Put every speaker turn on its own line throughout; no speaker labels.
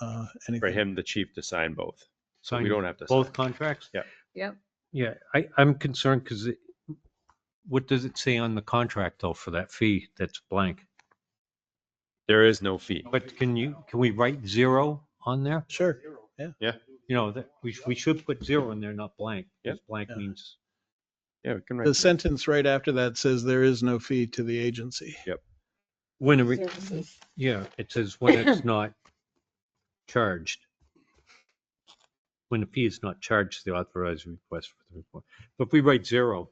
uh,
for
anything.
him, the chief, to sign both. So
Sign
we don't have to.
Both
sign.
contracts?
Yeah.
Yep.
Yeah, I, I'm concerned because it, what does it say on the contract though for that fee that's blank?
There is no fee.
But can you, can we write zero on there?
Sure.
You know, that, we, we should put zero in there, not blank. 'cause Blank
Yeah.
means,
Yeah, we can write.
The sentence right after that says there is no fee to the agency.
when, a re-
Services.
yeah, it says when it's not charged. When the fee is not charged, the authorized request for the report. But if we write zero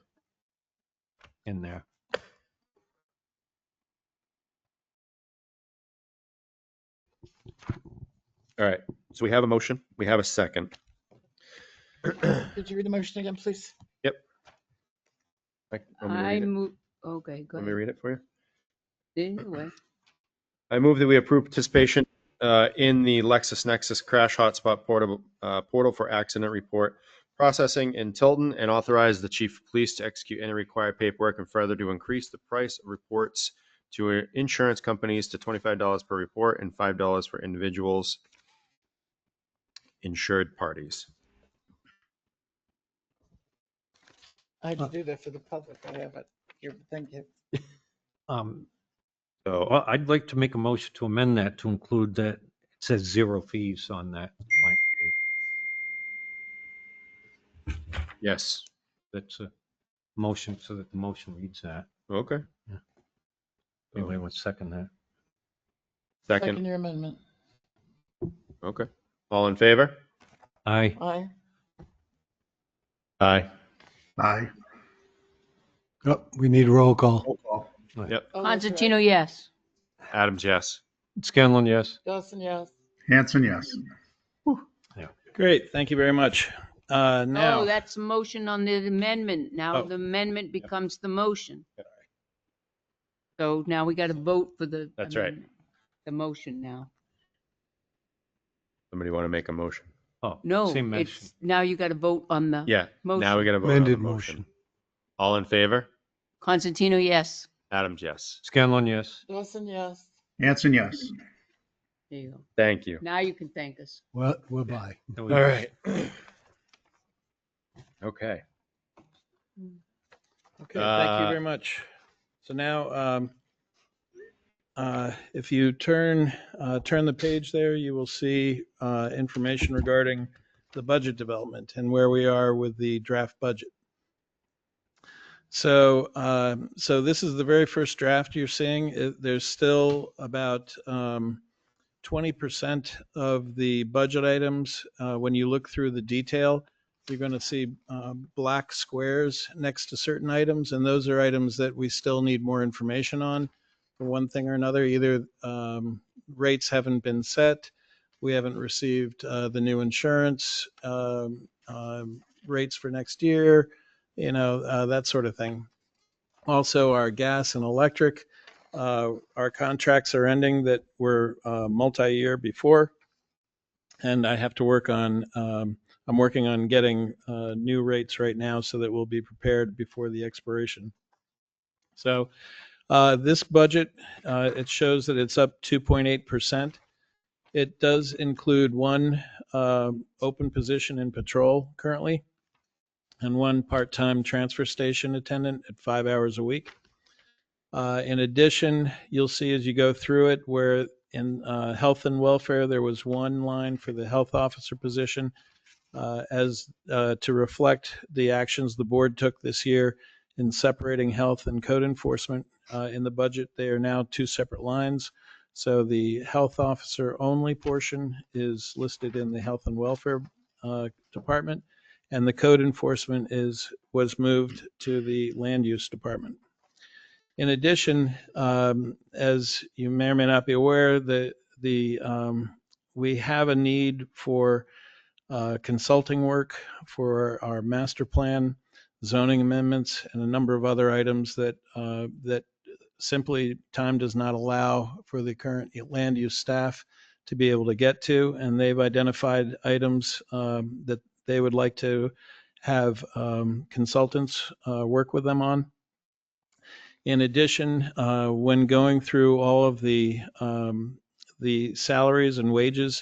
in there.
All right. So we have a motion. We have a second.
Could you read the motion again, please?
Like, want me to read
I
it?
move, okay, go
Want me to
ahead.
read it for you?
Anyway,
Oh,
I move that we approve participation uh, in the LexisNexis Crash Hotspot Portable, uh, Portal for Accident Report Processing in Tilton and authorize the Chief of Police to execute any required paperwork and further to increase the price of reports to uh, insurance companies to $25 per report and $5 for individuals insured parties.
I had to do that for the public. I have it. Here, thank you.
Um,
So uh,
Well, I'd like to make a motion to amend that to include that it says zero fees on that. blank fee.
yes,
That's a motion so that the motion reads that.
okay.
Anybody want to second that?
Second,
Your amendment.
okay. All in favor?
Aye.
Aye.
Aye.
Aye.
Oh, we need a roll call.
Roll call.
Oh, that's right.
Constantino, yes.
Adams, yes.
Scanlon, yes.
Dawson, yes.
Hanson, yes.
Great. Thank you very much. Uh,
No,
now,
Oh, that's a motion on the amendment. Now
Oh.
the amendment becomes the motion. So now we got to vote for the.
That's right.
amendment, The motion now.
Somebody want to make a motion?
Oh,
No,
Same motion.
it's, now you got to vote on the.
Yeah, now we
Motion.
got to vote on the
Amended
motion.
motion.
All in favor?
Constantino, yes.
Adams, yes.
Scanlon, yes.
Dawson, yes.
Hanson, yes.
There you go.
Thank you.
Now you can thank us.
well, we'll buy.
All
Okay.
Okay, thank you
Uh,
very much. So now, um, uh, if you turn, uh, turn the page there, you will see, uh, information regarding the budget development and where we are with the draft budget. So, um, so this is the very first draft you're seeing. It- There's still about, um, 20% of the budget items, uh, when you look through the detail, you're going to see uh, black squares next to certain items, and those are items that we still need more information on for one thing or another. Either um, rates haven't been set, we haven't received uh, the new insurance um, um, rates for next year, you know, uh, that sort of thing. Also, our gas and electric, uh, our contracts are ending that were uh, multi-year before, and I have to work on um, I'm working on getting uh, new rates right now so that we'll be prepared before the expiration. So uh, this budget, uh, it shows that it's up 2.8%. It does include one um, open position in patrol currently and one part-time transfer station attendant at five hours a week. Uh, In addition, you'll see as you go through it where in uh, health and welfare, there was one line for the health officer position uh, as uh, to reflect the actions the board took this year in separating health and code enforcement uh, in the budget. They are now two separate lines. So the health officer only portion is listed in the health and welfare uh, department, and the code enforcement is was moved to the land use department. In addition, um, as you may or may not be aware, the the um, we have a need for uh, consulting work for our master plan, zoning amendments, and a number of other items that, uh, that simply time does not allow for the current land use staff to be able to get to. And they've identified items um, that they would like to have um, consultants uh, work with them on. In addition, uh, when going through all of the, um, the salaries and wages,